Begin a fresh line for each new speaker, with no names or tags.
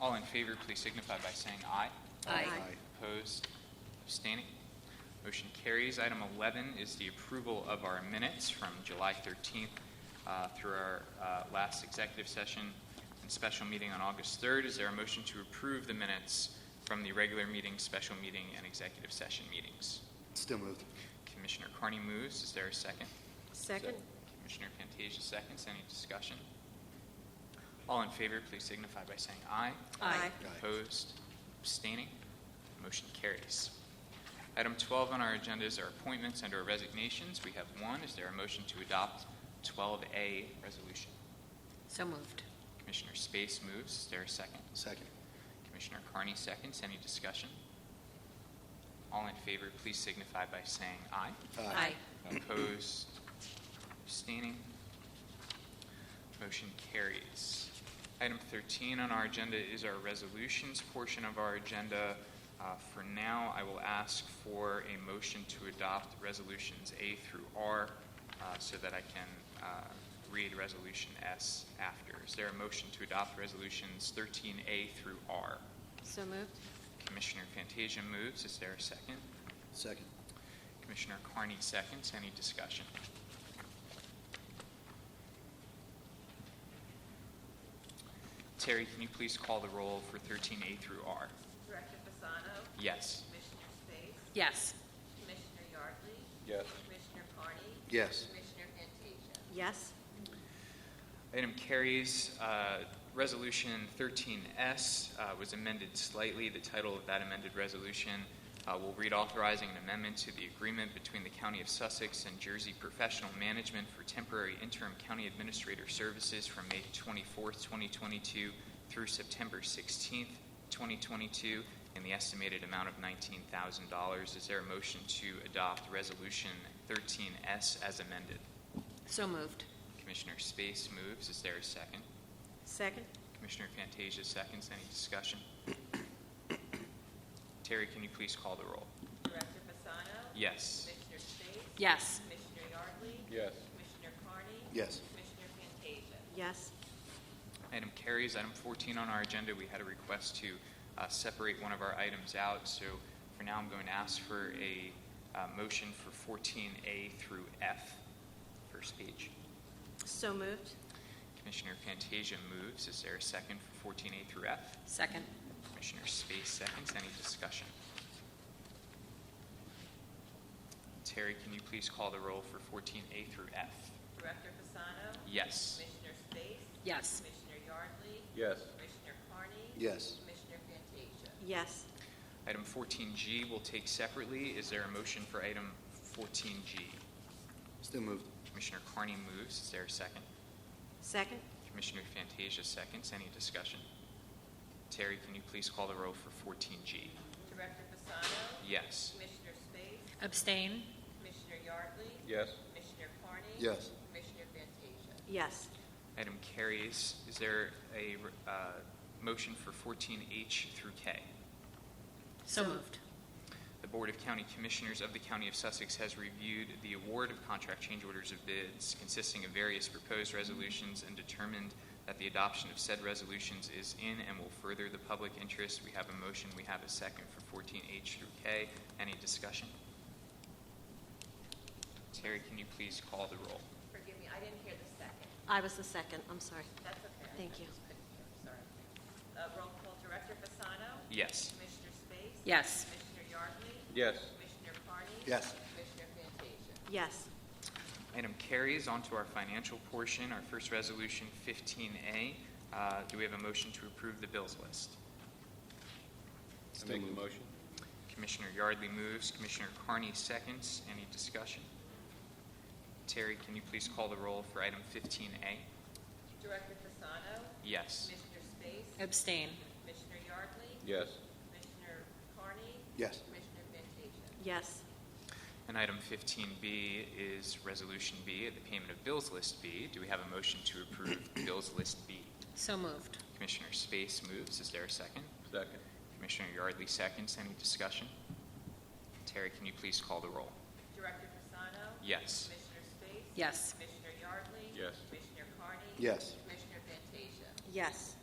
All in favor, please signify by saying aye.
Aye.
Opposed, abstaining. Motion carries. Item 11 is the approval of our minutes from July 13th uh, through our uh, last executive session and special meeting on August 3rd. Is there a motion to approve the minutes from the regular meeting, special meeting, and executive session meetings?
Still moved.
Commissioner Carney moves. Is there a second?
Second?
Commissioner Fantasia seconds. Any discussion? All in favor, please signify by saying aye.
Aye.
Opposed, abstaining, motion carries. Item 12 on our agenda is our appointments and/or resignations. We have one. Is there a motion to adopt 12A resolution?
So moved.
Commissioner Space moves. Is there a second?
Second.
Commissioner Carney seconds. Any discussion? All in favor, please signify by saying aye. Opposed? Abstaining? Motion carries. Item 13 on our agenda is our resolutions portion of our agenda. Uh, For now, I will ask for a motion to adopt Resolutions A through R uh, so that I can uh, read Resolution S after. Is there a motion to adopt Resolutions 13A through R?
So moved?
Commissioner Fantasia moves. Is there a second?
Second.
Commissioner Carney seconds. Any discussion? Terry, can you please call the roll for 13A through R?
Director Fasano,
Yes.
Commissioner Space,
Yes.
Commissioner Yardley,
Yes.
Commissioner Carney,
Yes.
Commissioner Fantasia.
Yes?
Item carries. Uh, Resolution 13S uh, was amended slightly. The title of that amended resolution uh, will read authorizing an amendment to the agreement between the County of Sussex and Jersey Professional Management for temporary interim county administrator services from May 24th, 2022 through September 16th, 2022, in the estimated amount of $19,000. Is there a motion to adopt Resolution 13S as amended?
So moved.
Commissioner Space moves. Is there a second?
Second?
Commissioner Fantasia seconds. Any discussion? Terry, can you please call the roll?
Director Fasano,
Yes.
Commissioner Space,
Yes.
Commissioner Yardley,
Yes.
Commissioner Carney,
Yes.
Commissioner Fantasia.
Yes.
Item carries. Item 14 on our agenda, we had a request to uh, separate one of our items out, so for now, I'm going to ask for a uh, motion for 14A through F, first page.
So moved?
Commissioner Fantasia moves. Is there a second for 14A through F?
Second?
Commissioner Space seconds. Any discussion? Terry, can you please call the roll for 14A through F?
Director Fasano,
Yes.
Commissioner Space,
Yes.
Commissioner Yardley,
Yes.
Commissioner Carney,
Yes.
Commissioner Fantasia.
Yes.
Item 14G will take separately. Is there a motion for item 14G?
Still moved.
Commissioner Carney moves. Is there a second?
Second?
Commissioner Fantasia seconds. Any discussion? Terry, can you please call the roll for 14G?
Director Fasano,
Yes.
Commissioner Space,
Abstain?
Commissioner Yardley,
Yes.
Commissioner Carney.
Yes.
Commissioner Fantasia.
Yes.
Item carries. Is there a uh, motion for 14H through K?
So moved.
The Board of County Commissioners of the County of Sussex has reviewed the award of contract change orders of bids consisting of various proposed resolutions and determined that the adoption of said resolutions is in and will further the public interest. We have a motion, we have a second for 14H through K. Any discussion? Terry, can you please call the roll?
Forgive me, I didn't hear the second.
I was the second, I'm sorry.
That's okay. I-
Thank you.
I just couldn't hear. Sorry. Uh, Roll call, Director Fasano?
Yes.
Commissioner Space?
Yes.
Commissioner Yardley?
Yes.
Commissioner Carney?
Yes.
Commissioner Fantasia?
Yes.
Item carries on to our financial portion, our first resolution, 15A. Uh, Do we have a motion to approve the bills list?
I make the motion?
Commissioner Yardley moves, Commissioner Carney seconds. Any discussion? Terry, can you please call the roll for item 15A?
Director Fasano?
Yes.
Commissioner Space?
Abstain?
Commissioner Yardley?
Yes.
Commissioner Carney?
Yes.
Commissioner Fantasia?
Yes.
And item 15B is Resolution B, the payment of bills list B. Do we have a motion to approve bills list B?
So moved.
Commissioner Space moves. Is there a second?
Second?
Commissioner Yardley seconds. Any discussion? Terry, can you please call the roll?
Director Fasano?
Yes.
Commissioner Space?
Yes.
Commissioner Yardley?
Yes.
Commissioner Carney?
Yes.
Commissioner Fantasia?
Yes.